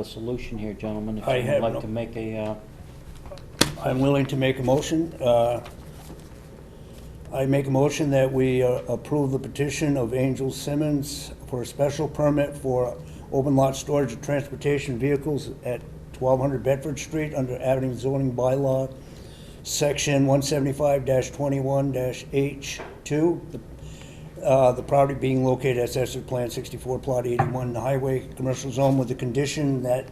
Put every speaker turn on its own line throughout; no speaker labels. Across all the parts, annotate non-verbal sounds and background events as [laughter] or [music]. a solution here, gentlemen, if
I
you'd
have
like
no-
to make a, uh,
I'm willing to make a motion. Uh, I make a motion that we uh, approve the petition of Angel Simmons for a special permit for open lot storage of transportation vehicles at 1200 Bedford Street under Avenue zoning bylaw, section 175-21-H2. The uh, the property being located at Assessor Plan 64, Plot 81, in the Highway Commercial Zone with the condition that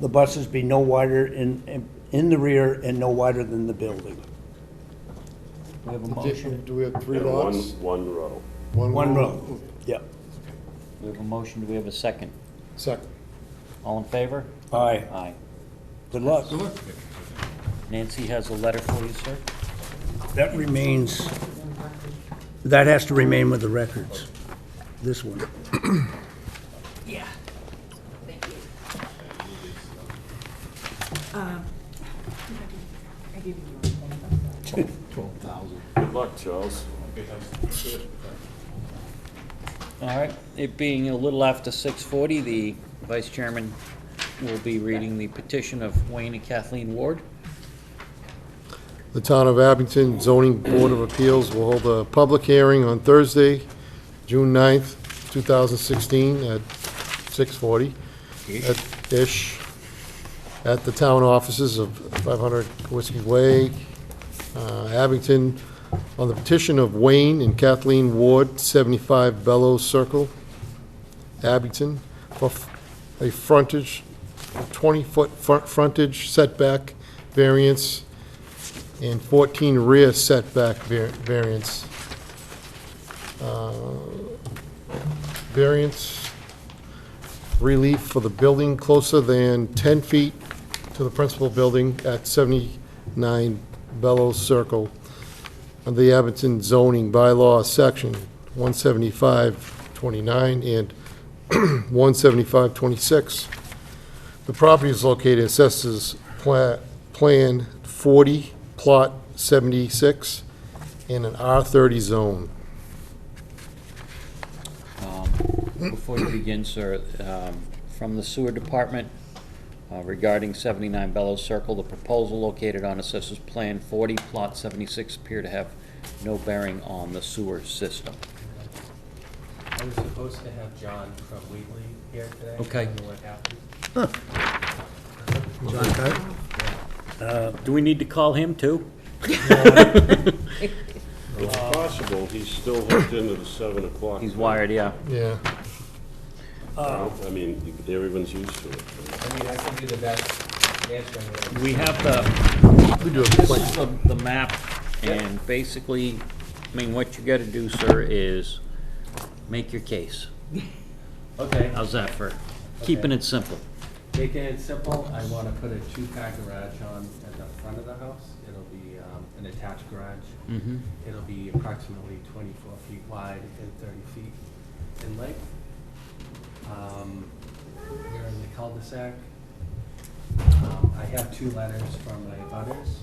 the buses be no wider in, in- in the rear and no wider than the building.
we have a motion,
Do we have three
And one,
lots?
one row.
One row. Yep.
we have a motion, do we have a second?
Second.
All in favor?
Aye.
Aye.
Good luck.
Nancy has a letter for you, sir.
That remains, that has to remain with the records, this one.
Good luck, Charles.
All right, it being a little after 6:40, the vice chairman will be reading the petition of Wayne and Kathleen Ward.
The Town of Abington Zoning Board of Appeals will hold a public hearing on Thursday, June 9th, 2016, at 6:40, at- ish, at the town offices of 500 Whiskey Way, uh, Abington, on the petition of Wayne and Kathleen Ward, 75 Bellows Circle, Abington, for f- a frontage, 20-foot frontage setback variance and 14 rear setback var- variance. Uh, Variance relief for the building closer than 10 feet to the principal building at 79 Bellows Circle under the Abington zoning bylaw, section 175-29 and [clears throat] 175-26. The property is located assesses pla- Plan 40, Plot 76, in an R30 zone.
Before you begin, sir, um, from the sewer department uh, regarding 79 Bellows Circle, the proposal located on Assessors Plan 40, Plot 76, appear to have no bearing on the sewer system.
I was supposed to have John from Wheatley here today.
Okay.
I don't know what happened.
Do we need to call him, too?
It's possible he's still hooked into the seven o'clock.
He's wired, yeah.
Yeah.
I mean, everyone's used to it.
I mean, I can do the best answering. that I
We have the
We do have a
This
plan.
is the, the map, and basically, I mean, what you gotta do, sir, is make your case.
Okay,
How's that for keeping it simple?
making it simple, I want to put a two-car garage on at the front of the house. It'll be um, an attached garage.
Mm-hmm.
It'll be approximately 24 feet wide and 30 feet in length. Um, We're in the cul-de-sac. Um, I have two letters from my butters.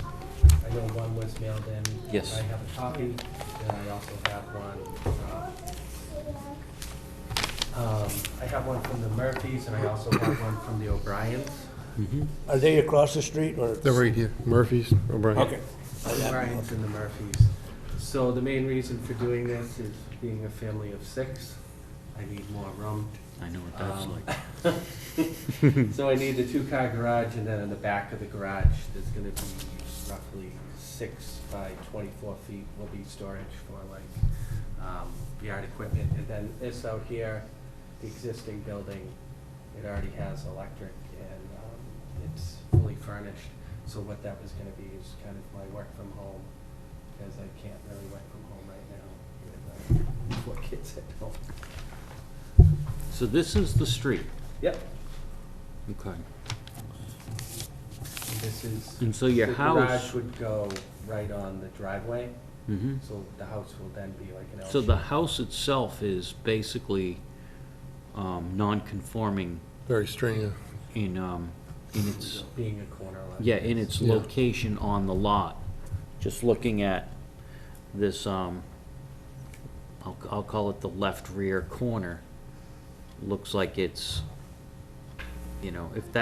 I know one was mailed in.
Yes.
I have a copy, and I also have one from, um, I have one from the Murphys, and I also have one from the O'Briens.
Are they across the street or?
They're right here, Murphy's, O'Brien.
Okay.
The O'Briens and the Murphys. So the main reason for doing this is being a family of six, I need more room.
I know what that's
Um,
like.
So I need the two-car garage, and then in the back of the garage, there's gonna be roughly six by twenty-four feet will be storage for like, um, yard equipment. And then this out here, the existing building, it already has electric and, um, it's fully furnished. So what that was gonna be is kind of my work from home, because I can't really work from home right now with uh, four [laughs] kids at home.
[laughs] So this is the street.
Yep.
Okay.
This is.
And so your
The
house-
garage would go right on the driveway,
Mm-hmm.
so the house will then be like an L.
So the house itself is basically, um, non-conforming
Very strange, yeah.
in, um, in its,
shape, Being a corner lot.
yeah, in its
Yeah.
location on the lot. Just looking at this, um, I'll, I'll call it the left rear corner, looks like it's you know, if that